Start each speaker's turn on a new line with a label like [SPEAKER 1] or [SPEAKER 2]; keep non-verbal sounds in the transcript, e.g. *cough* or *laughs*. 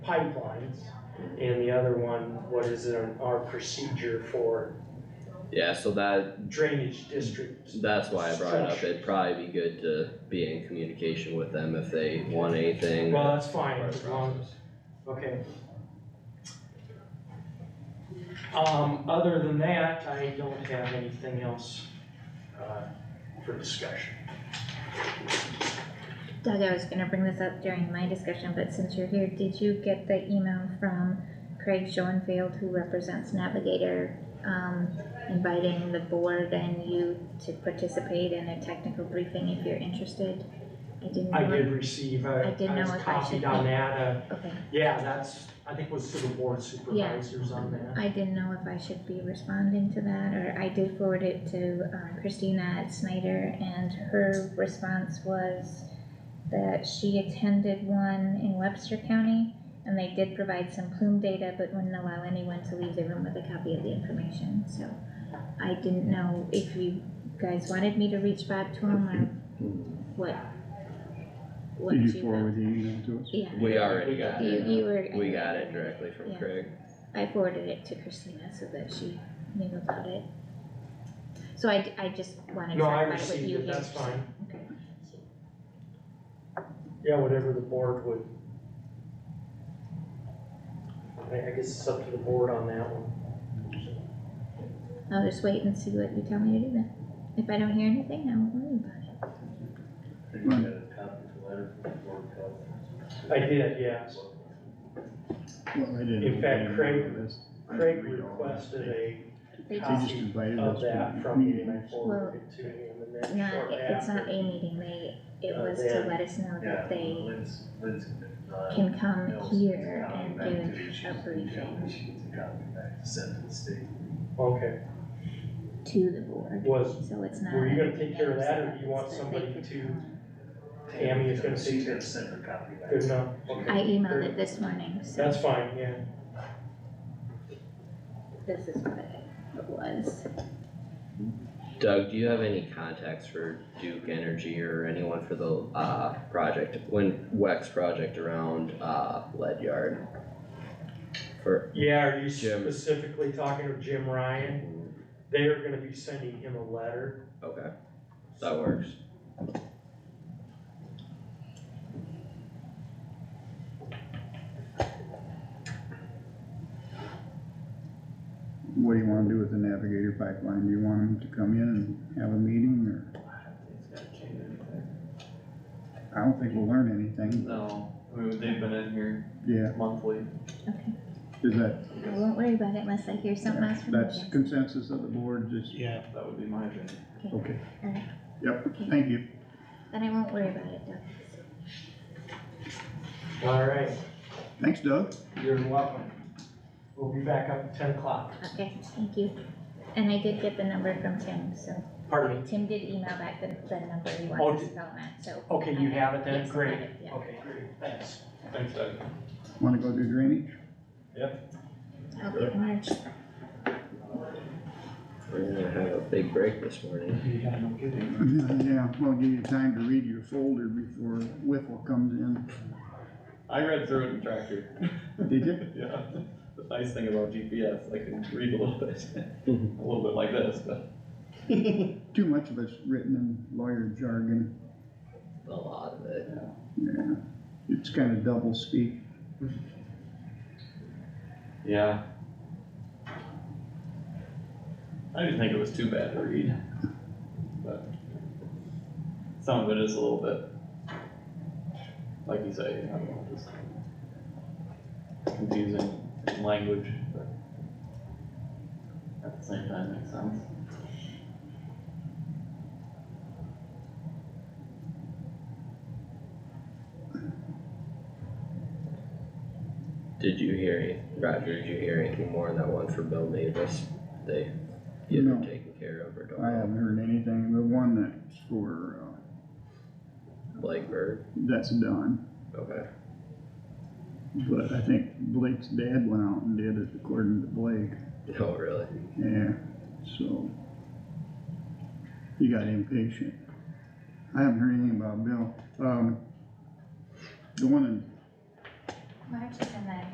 [SPEAKER 1] pipelines, and the other one, what is it, our procedure for
[SPEAKER 2] Yeah, so that,
[SPEAKER 1] drainage district.
[SPEAKER 2] that's why I brought it up, it'd probably be good to be in communication with them if they want anything.
[SPEAKER 1] Well, that's fine,
[SPEAKER 2] part of
[SPEAKER 1] as
[SPEAKER 2] the
[SPEAKER 1] long,
[SPEAKER 2] process.
[SPEAKER 1] okay. Um, other than that, I don't have anything else, uh, for discussion.
[SPEAKER 3] Doug, I was gonna bring this up during my discussion, but since you're here, did you get the email from Craig Schoenfield, who represents Navigator, um, inviting the board and you to participate in a technical briefing if you're interested? I didn't know.
[SPEAKER 1] I
[SPEAKER 3] if-
[SPEAKER 1] did receive, I,
[SPEAKER 3] I didn't
[SPEAKER 1] I was
[SPEAKER 3] know if I
[SPEAKER 1] copied
[SPEAKER 3] should
[SPEAKER 1] on
[SPEAKER 3] be-
[SPEAKER 1] that, uh,
[SPEAKER 3] Okay,
[SPEAKER 1] yeah, that's, I think was to the board supervisors on that.
[SPEAKER 3] I didn't know if I should be responding to that, or I did forward it to um, Christina at Snyder, and her response was that she attended one in Webster County, and they did provide some plume data, but wouldn't allow anyone to leave the room with a copy of the information, so I didn't know if you guys wanted me to reach back to him, or what, what
[SPEAKER 4] Did
[SPEAKER 3] you.
[SPEAKER 4] you forward the email to us?
[SPEAKER 3] Yeah,
[SPEAKER 2] We already got
[SPEAKER 3] you, you
[SPEAKER 2] it,
[SPEAKER 3] were.
[SPEAKER 2] we got it directly from
[SPEAKER 3] Yeah.
[SPEAKER 2] Craig.
[SPEAKER 3] I forwarded it to Christina so that she knew about it. So I, d- I just wanted to
[SPEAKER 1] No, I
[SPEAKER 3] talk about it with
[SPEAKER 1] received
[SPEAKER 3] you
[SPEAKER 1] it,
[SPEAKER 3] here.
[SPEAKER 1] that's fine.
[SPEAKER 3] Okay.
[SPEAKER 1] Yeah, whatever the board would. I, I guess it's up to the board on that one.
[SPEAKER 3] I'll just wait and see what you tell me to do then. If I don't hear anything, I won't worry about
[SPEAKER 5] Think you got a copy of the letter from the board of health?
[SPEAKER 1] I did, yes.
[SPEAKER 4] Well, I didn't
[SPEAKER 1] In fact,
[SPEAKER 4] get
[SPEAKER 1] Craig-
[SPEAKER 4] any of this. I
[SPEAKER 1] Craig
[SPEAKER 4] didn't read all this.
[SPEAKER 1] requested a
[SPEAKER 3] it. They
[SPEAKER 4] They
[SPEAKER 3] just,
[SPEAKER 4] just invited us
[SPEAKER 1] of
[SPEAKER 4] to
[SPEAKER 1] that
[SPEAKER 4] the
[SPEAKER 1] from me and I
[SPEAKER 4] meeting.
[SPEAKER 1] forwarded it to him and
[SPEAKER 3] it's
[SPEAKER 1] then
[SPEAKER 3] not,
[SPEAKER 1] shortly
[SPEAKER 3] it- it's not
[SPEAKER 1] after.
[SPEAKER 3] a meeting, they, it
[SPEAKER 1] Uh,
[SPEAKER 3] was
[SPEAKER 1] they
[SPEAKER 3] to
[SPEAKER 1] had-
[SPEAKER 3] let us know
[SPEAKER 5] Yeah,
[SPEAKER 3] that they
[SPEAKER 5] Lynn's, Lynn's. uh,
[SPEAKER 3] can come
[SPEAKER 5] mails
[SPEAKER 3] here
[SPEAKER 5] copy
[SPEAKER 3] and
[SPEAKER 5] back to you.
[SPEAKER 3] give
[SPEAKER 5] She
[SPEAKER 3] a
[SPEAKER 5] gets the copy.
[SPEAKER 3] briefing
[SPEAKER 5] She gets a copy back to send to the state.
[SPEAKER 1] Okay,
[SPEAKER 3] to the board,
[SPEAKER 1] was,
[SPEAKER 3] so it's not.
[SPEAKER 1] were you gonna take care of that or do you
[SPEAKER 3] it's
[SPEAKER 1] want
[SPEAKER 3] that they
[SPEAKER 1] somebody
[SPEAKER 3] could
[SPEAKER 1] to-
[SPEAKER 3] come.
[SPEAKER 1] Tammy is gonna see
[SPEAKER 5] She's
[SPEAKER 1] that.
[SPEAKER 5] gonna send her copy back.
[SPEAKER 1] good enough?
[SPEAKER 3] I
[SPEAKER 1] Okay,
[SPEAKER 3] emailed it this morning, so
[SPEAKER 1] That's fine, yeah.
[SPEAKER 3] this is what it was.
[SPEAKER 2] Doug, do you have any contacts for Duke Energy or anyone for the, uh, project, when Wex project around, uh, lead yard? For,
[SPEAKER 1] Yeah, are you
[SPEAKER 2] Jim.
[SPEAKER 1] specifically talking to Jim Ryan? They are gonna be sending him a letter.
[SPEAKER 2] okay, that works.
[SPEAKER 4] What do you wanna do with the Navigator pipeline? Do you want them to come in and have a meeting or? I don't think we'll learn anything.
[SPEAKER 6] No, I mean, they've been in here
[SPEAKER 4] Yeah,
[SPEAKER 6] monthly.
[SPEAKER 3] Okay.
[SPEAKER 4] is that,
[SPEAKER 3] I won't worry about it unless I hear something else from you
[SPEAKER 4] that's
[SPEAKER 3] guys.
[SPEAKER 4] consensus of the board, just,
[SPEAKER 1] Yeah.
[SPEAKER 6] That would be my opinion.
[SPEAKER 4] okay.
[SPEAKER 3] Alright.
[SPEAKER 4] Yep, thank you.
[SPEAKER 3] Then I won't worry about it, Doug.
[SPEAKER 1] Alright,
[SPEAKER 4] Thanks, Doug.
[SPEAKER 1] you're welcome. We'll be back up at ten o'clock.
[SPEAKER 3] Okay, thank you. And I did get the number from Tim, so
[SPEAKER 1] Pardon me?
[SPEAKER 3] Tim did email back the, the number he
[SPEAKER 1] Oh,
[SPEAKER 3] wanted to
[SPEAKER 1] did-
[SPEAKER 3] spell that, so.
[SPEAKER 1] Okay, you have it then?
[SPEAKER 3] Yes, I
[SPEAKER 1] Great.
[SPEAKER 3] have it, yeah.
[SPEAKER 1] Okay, great, thanks.
[SPEAKER 6] Thanks, Doug.
[SPEAKER 4] Wanna go do drainage?
[SPEAKER 3] I'll get Marge.
[SPEAKER 2] We're gonna have a big break this morning.
[SPEAKER 1] You got no kidding.
[SPEAKER 4] Yeah, well, give you time to read your folder before Whipple comes in.
[SPEAKER 6] I read through it in tractor. *laughs*
[SPEAKER 4] Did you?
[SPEAKER 6] Yeah, the nice thing about GPS, I can read a little bit, *laughs* a little bit like this, but.
[SPEAKER 4] Too much of it's written in lawyer jargon.
[SPEAKER 2] A lot of it.
[SPEAKER 4] Yeah, it's kinda double speak.
[SPEAKER 6] Yeah. I didn't think it was too bad to read, but some of it is a little bit, like you say, I don't know, just confusing language, but at the same time, makes sense.
[SPEAKER 2] Did you hear, any- Roger, did you hear anything more on that one for Bill Davis? They, you
[SPEAKER 4] No.
[SPEAKER 2] taken care of or don't?
[SPEAKER 4] I haven't heard anything, the one that's for, uh,
[SPEAKER 2] Blake Bird,
[SPEAKER 4] that's done,
[SPEAKER 2] okay, *laughs*
[SPEAKER 4] but I think Blake's dad went out and did it according to Blake,
[SPEAKER 2] oh, really?
[SPEAKER 4] yeah, so. He got impatient. I haven't heard anything about Bill, um, the one in
[SPEAKER 3] March is in that